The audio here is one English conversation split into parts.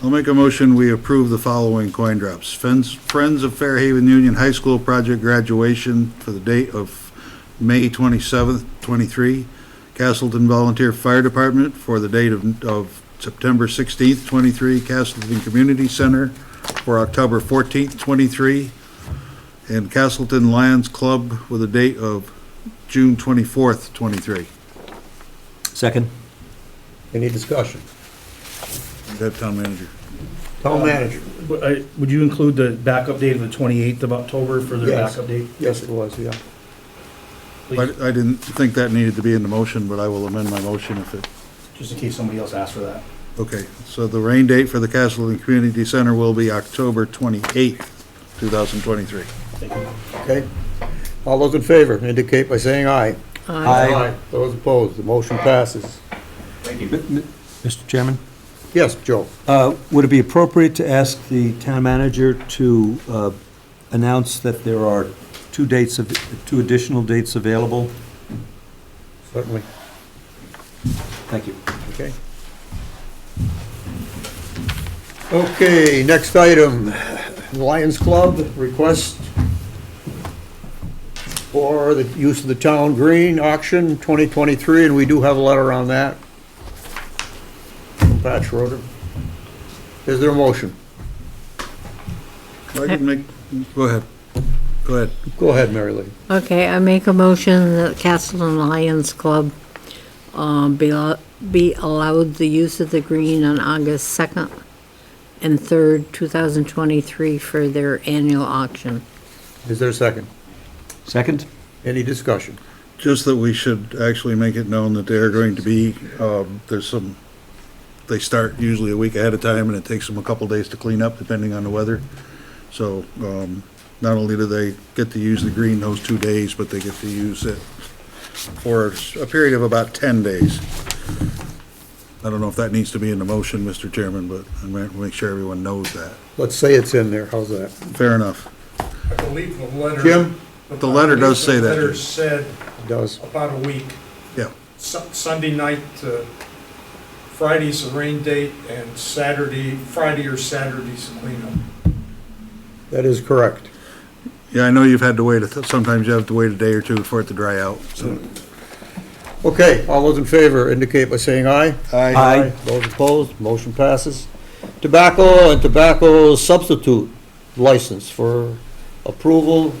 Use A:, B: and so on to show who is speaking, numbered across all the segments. A: I'll make a motion, we approve the following coin drops. Friends, Friends of Fairhaven Union High School project graduation for the date of May twenty-seventh, twenty-three. Castleton Volunteer Fire Department for the date of, of September sixteenth, twenty-three. Castleton Community Center for October fourteenth, twenty-three. And Castleton Lions Club with a date of June twenty-fourth, twenty-three.
B: Second?
C: Any discussion?
A: That town manager.
C: Town manager?
D: Would I- would you include the backup date of the 28th of October for their
C: Yes.
D: backup date?
C: Yes, it was, yeah.
A: I, I didn't think that needed to be in the motion, but I will amend my motion if it
D: Just in case somebody else asks for that.
A: Okay, so the rain date for the Castleton Community Center will be October 28th, 2023.
D: Thank you.
C: Okay. All those in favor indicate by saying aye.
B: Aye.
C: Those opposed, the motion passes.
B: Mr. Chairman?
C: Yes, Joe?
B: Uh, Would it be appropriate to ask the town manager to uh, announce that there are two dates, of two additional dates available?
C: Certainly.
B: Thank you.
C: Okay. Okay, next item, Lions Club request for the use of the town green auction 2023, and we do have a letter on that. From Pat Schroeder. Is there a motion?
A: I can make, go ahead, go ahead.
C: Go ahead, Mary Lee.
E: Okay, I make a motion that Castleton Lions Club um, be al- be allowed the use of the green on August 2nd and 3rd, 2023 for their annual auction.
C: Is there a second?
B: Second?
C: Any discussion?
A: Just that we should actually make it known that they're going to be, um, there's some, they start usually a week ahead of time, and it takes them a couple days to clean up, depending on the weather. So um, not only do they get to use the green those two days, but they get to use it for a period of about 10 days. I don't know if that needs to be in the motion, Mr. Chairman, but I'm going to make sure everyone knows that.
C: Let's say it's in there, how's that?
A: Fair enough.
F: I believe the letter.
C: Jim?
A: The letter does say
F: The
A: that.
F: letter said
C: Does,
F: about a week,
A: Yeah.
F: Su- Sunday night to Friday's the rain date, and Saturday, Friday or Saturday's the cleanup.
C: that is correct.
A: Yeah, I know you've had to wait, a- sometimes you have to wait a day or two for it to dry out, so.
C: Okay, all those in favor indicate by saying aye.
B: Aye.
C: Those opposed, motion passes. Tobacco and tobacco substitute license for approval,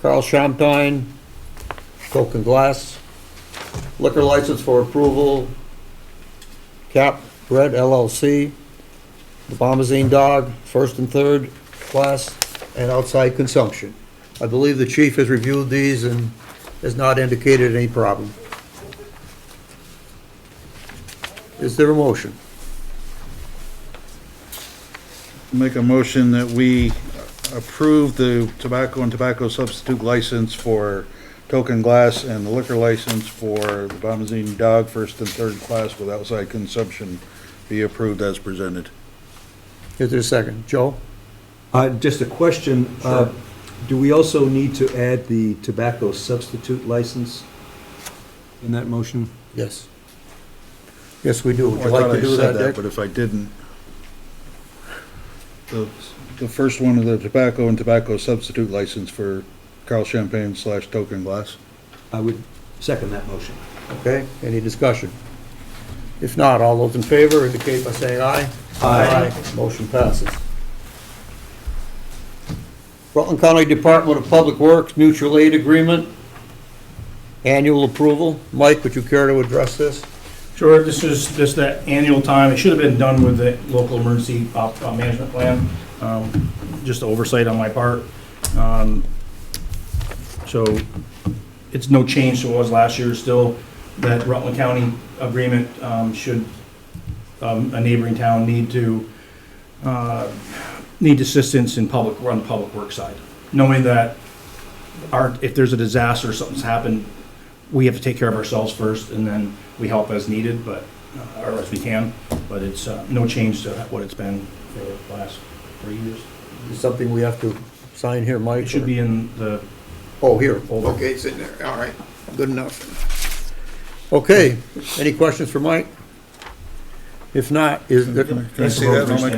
C: Carl Champagne, Coke and Glass. Liquor license for approval, Cap Red LLC, the Bombazine Dog, first and third class, and outside consumption. I believe the chief has reviewed these and has not indicated any problem. Is there a motion?
A: Make a motion that we approve the tobacco and tobacco substitute license for Token Glass and the liquor license for the Bombazine Dog First and Third Class with outside consumption be approved as presented.
C: Is there a second? Joe?
B: Uh, Just a question. uh, Do we also need to add the tobacco substitute license in that motion?
C: Yes. Oh, Yes, we do. Would you
A: I
C: like
A: thought I
C: to do
A: said
C: that,
A: But
C: Dick?
A: if I didn't, the, the first one of the tobacco and tobacco substitute license for Carl Champagne slash Token Glass.
B: I would second that motion.
C: Okay, any discussion? If not, all those in favor indicate by saying aye.
B: Aye.
C: Motion passes. Rutland County Department of Public Works Mutual Aid Agreement, annual approval. Mike, would you care to address this?
D: Sure, this is just that annual time, it should have been done with the local emergency op- uh, management plan, Um, just oversight on my part. Um, So it's no change to what was last year, still that Rutland County agreement um, should um, a neighboring town need to, uh, need assistance in public, on the public work side, knowing that our, if there's a disaster, something's happened, we have to take care of ourselves first, and then we help as needed, but, uh, or as we can, but it's uh, no change to what it's been for the last three years.
C: Is something we have to sign here, Mike?
D: It should be in the,
C: Oh, here.
D: Hold on.
C: Okay, it's in there. All right. Good enough. Okay, any questions for Mike?
G: If not, is there?
C: Can I see that? I'll make a